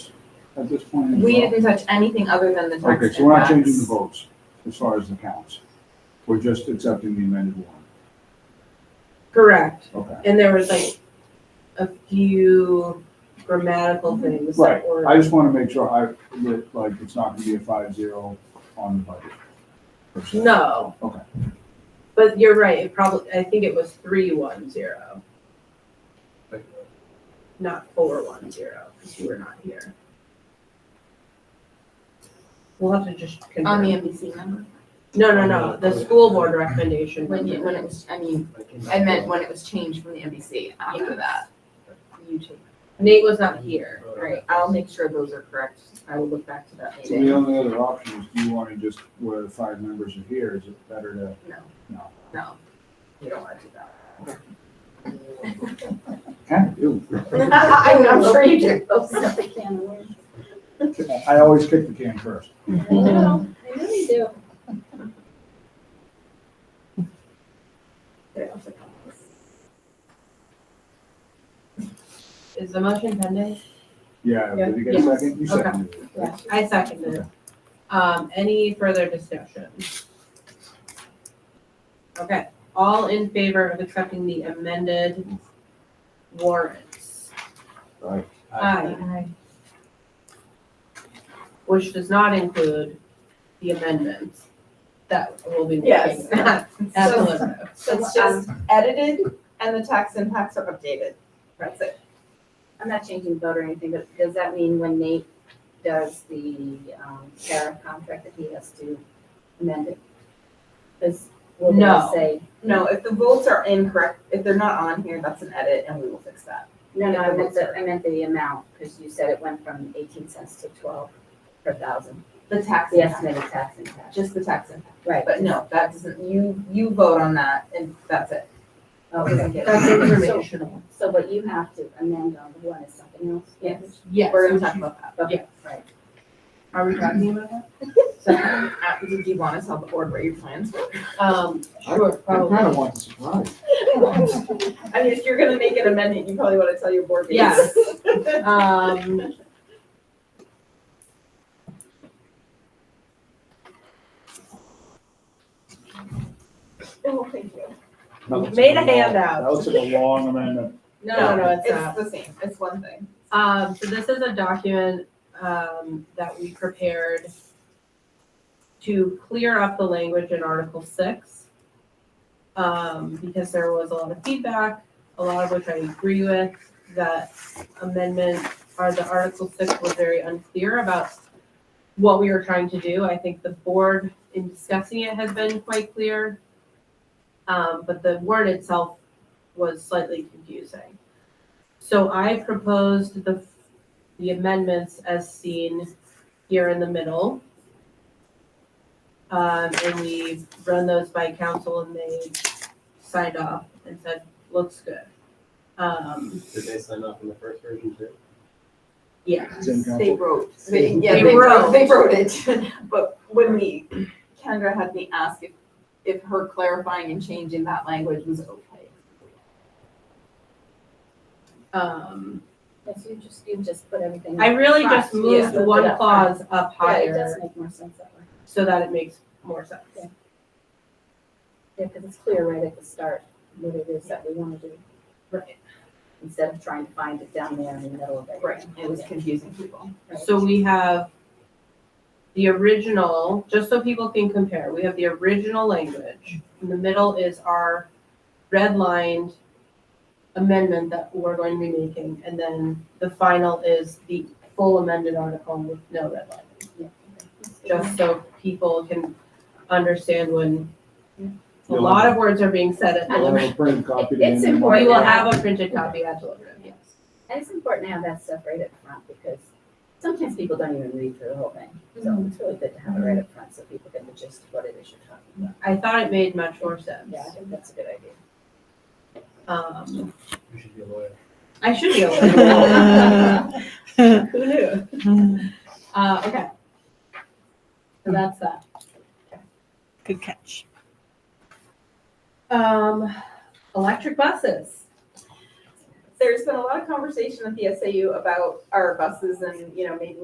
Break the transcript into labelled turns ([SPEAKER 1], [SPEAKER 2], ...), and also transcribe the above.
[SPEAKER 1] at this point in the
[SPEAKER 2] We
[SPEAKER 1] vote?
[SPEAKER 2] didn't touch anything other than the text.
[SPEAKER 1] Okay, so we're not
[SPEAKER 2] impacts.
[SPEAKER 1] changing the votes as far as the counts. We're just accepting the amended warrant.
[SPEAKER 3] Correct.
[SPEAKER 1] Okay.
[SPEAKER 3] And there was like a few grammatical
[SPEAKER 2] Mm-hmm.
[SPEAKER 3] things
[SPEAKER 1] Right.
[SPEAKER 3] that were.
[SPEAKER 1] I just want to make sure I, that, like, it's not going to be a five zero on the budget. per se.
[SPEAKER 3] No.
[SPEAKER 1] Okay.
[SPEAKER 3] But you're right, it probably, I think it was three one zero, not four one zero, because you were not here. We'll have to just
[SPEAKER 2] On the
[SPEAKER 3] confirm.
[SPEAKER 2] NBC number,
[SPEAKER 3] No, no, no, the school board recommendation.
[SPEAKER 2] when you, when it was, I mean, I meant when it was changed from the NBC after that. You changed,
[SPEAKER 3] Nate was not here.
[SPEAKER 2] right, I'll make sure those are correct, I will look back to that
[SPEAKER 1] So the
[SPEAKER 2] meeting.
[SPEAKER 1] only other option is, do you want to just, where the five members are here, is it better to?
[SPEAKER 2] No,
[SPEAKER 1] No.
[SPEAKER 2] no, you don't want to do that.
[SPEAKER 1] Kind of do.
[SPEAKER 2] I'm I'm sure you do.
[SPEAKER 1] I always kick the can first.
[SPEAKER 4] I know, I really do.
[SPEAKER 3] Is the motion pending?
[SPEAKER 1] Yeah,
[SPEAKER 3] Yeah.
[SPEAKER 1] did you get a
[SPEAKER 3] Yes.
[SPEAKER 1] second? You
[SPEAKER 3] Okay.
[SPEAKER 1] seconded it.
[SPEAKER 4] Yeah.
[SPEAKER 3] I seconded. it. Um, any further discussion? Okay, all in favor of accepting the amended warrants?
[SPEAKER 1] Aye.
[SPEAKER 5] Uh,
[SPEAKER 3] Aye. Which does not include the amendments that will be working
[SPEAKER 6] Yes.
[SPEAKER 3] at at the limit.
[SPEAKER 6] So it's just edited and the tax impacts are updated. That's it.
[SPEAKER 4] I'm not changing vote or anything, but does that mean when Nate does the um, tariff contract that he has to amend it? Because will
[SPEAKER 3] No.
[SPEAKER 4] they say,
[SPEAKER 6] No, if the votes are incorrect, if they're not on here, that's an edit and we will fix that.
[SPEAKER 4] no, no, I meant the, I meant the amount, because you said it went from eighteen cents to twelve per thousand,
[SPEAKER 6] The tax
[SPEAKER 4] the
[SPEAKER 6] impact,
[SPEAKER 4] estimated tax impact.
[SPEAKER 6] just the tax impact.
[SPEAKER 4] Right,
[SPEAKER 6] But no, that doesn't, you, you vote on that and that's it.
[SPEAKER 4] Oh, okay.
[SPEAKER 3] That's informational.
[SPEAKER 4] So what you have to amend on the one is something else?
[SPEAKER 6] Yes.
[SPEAKER 3] Yes.
[SPEAKER 6] We're gonna talk about that.
[SPEAKER 4] Okay, right.
[SPEAKER 3] Are we talking about that?
[SPEAKER 6] So, uh, did you want to tell the board what your plans were?
[SPEAKER 3] Um, sure,
[SPEAKER 1] I kind of
[SPEAKER 3] probably.
[SPEAKER 1] want the surprise.
[SPEAKER 6] I mean, if you're gonna make an amendment, you probably want to tell your board
[SPEAKER 3] Yes.
[SPEAKER 6] meetings.
[SPEAKER 3] Um.
[SPEAKER 6] Oh, thank you.
[SPEAKER 3] Made a handout.
[SPEAKER 1] That looks like a long amendment.
[SPEAKER 3] No, no, no, it's uh, not.
[SPEAKER 6] It's the same, it's one thing.
[SPEAKER 3] Um, so this is a document, um, that we prepared to clear up the language in Article six. Um, because there was a lot of feedback, a lot of which I agree with, that amendment or the Article six was very unclear about what we were trying to do. I think the board in discussing it has been quite clear. Um, but the word itself was slightly confusing. So I proposed the, the amendments as seen here in the middle. Um, and we run those by council and they signed off and said, looks good. Um,
[SPEAKER 5] Did they sign off on the first version too?
[SPEAKER 3] yeah,
[SPEAKER 1] Same council.
[SPEAKER 6] They wrote, they, yeah,
[SPEAKER 3] They
[SPEAKER 6] they
[SPEAKER 3] wrote.
[SPEAKER 6] wrote, they wrote it, but when we, Kendra had me ask if, if her clarifying and changing that language was okay.
[SPEAKER 3] um,
[SPEAKER 4] Yes, you just, you just put everything.
[SPEAKER 3] I really just
[SPEAKER 4] Yeah.
[SPEAKER 3] moved one
[SPEAKER 4] Yeah.
[SPEAKER 3] clause up
[SPEAKER 4] Yeah, it does
[SPEAKER 3] higher
[SPEAKER 4] make more sense that way.
[SPEAKER 3] so that it makes more sense.
[SPEAKER 4] Yeah, because it's clear right at the start what it is that we want to do,
[SPEAKER 3] Right.
[SPEAKER 4] instead of trying to find it down there in the middle of everything.
[SPEAKER 6] It was confusing people.
[SPEAKER 3] So we have the original, just so people can compare, we have the original language. In the middle is our redlined amendment that we're going to be making. And then the final is the full amended article with no redlining,
[SPEAKER 4] Yeah.
[SPEAKER 3] just so people can understand when
[SPEAKER 4] Yeah.
[SPEAKER 3] a lot of words are being said at
[SPEAKER 1] We'll
[SPEAKER 3] deliberative.
[SPEAKER 1] have a printed copy. today.
[SPEAKER 4] It's
[SPEAKER 3] We
[SPEAKER 4] important.
[SPEAKER 3] will have a printed copy at deliberative, yes.
[SPEAKER 4] And it's important to have that stuff right up front because sometimes people don't even read through the whole thing. So it's really good to have it right up front so people get the gist of what it is you're talking about.
[SPEAKER 3] I thought it made much more sense.
[SPEAKER 4] Yeah, I think that's a good idea.
[SPEAKER 3] Um,
[SPEAKER 5] You should be a lawyer.
[SPEAKER 3] I should be able to. Who knew?
[SPEAKER 7] Good
[SPEAKER 3] Uh, okay. So that's that.
[SPEAKER 7] catch.
[SPEAKER 3] Um, electric buses.
[SPEAKER 6] There's been a lot of conversation at the SAU about our buses and, you know, maybe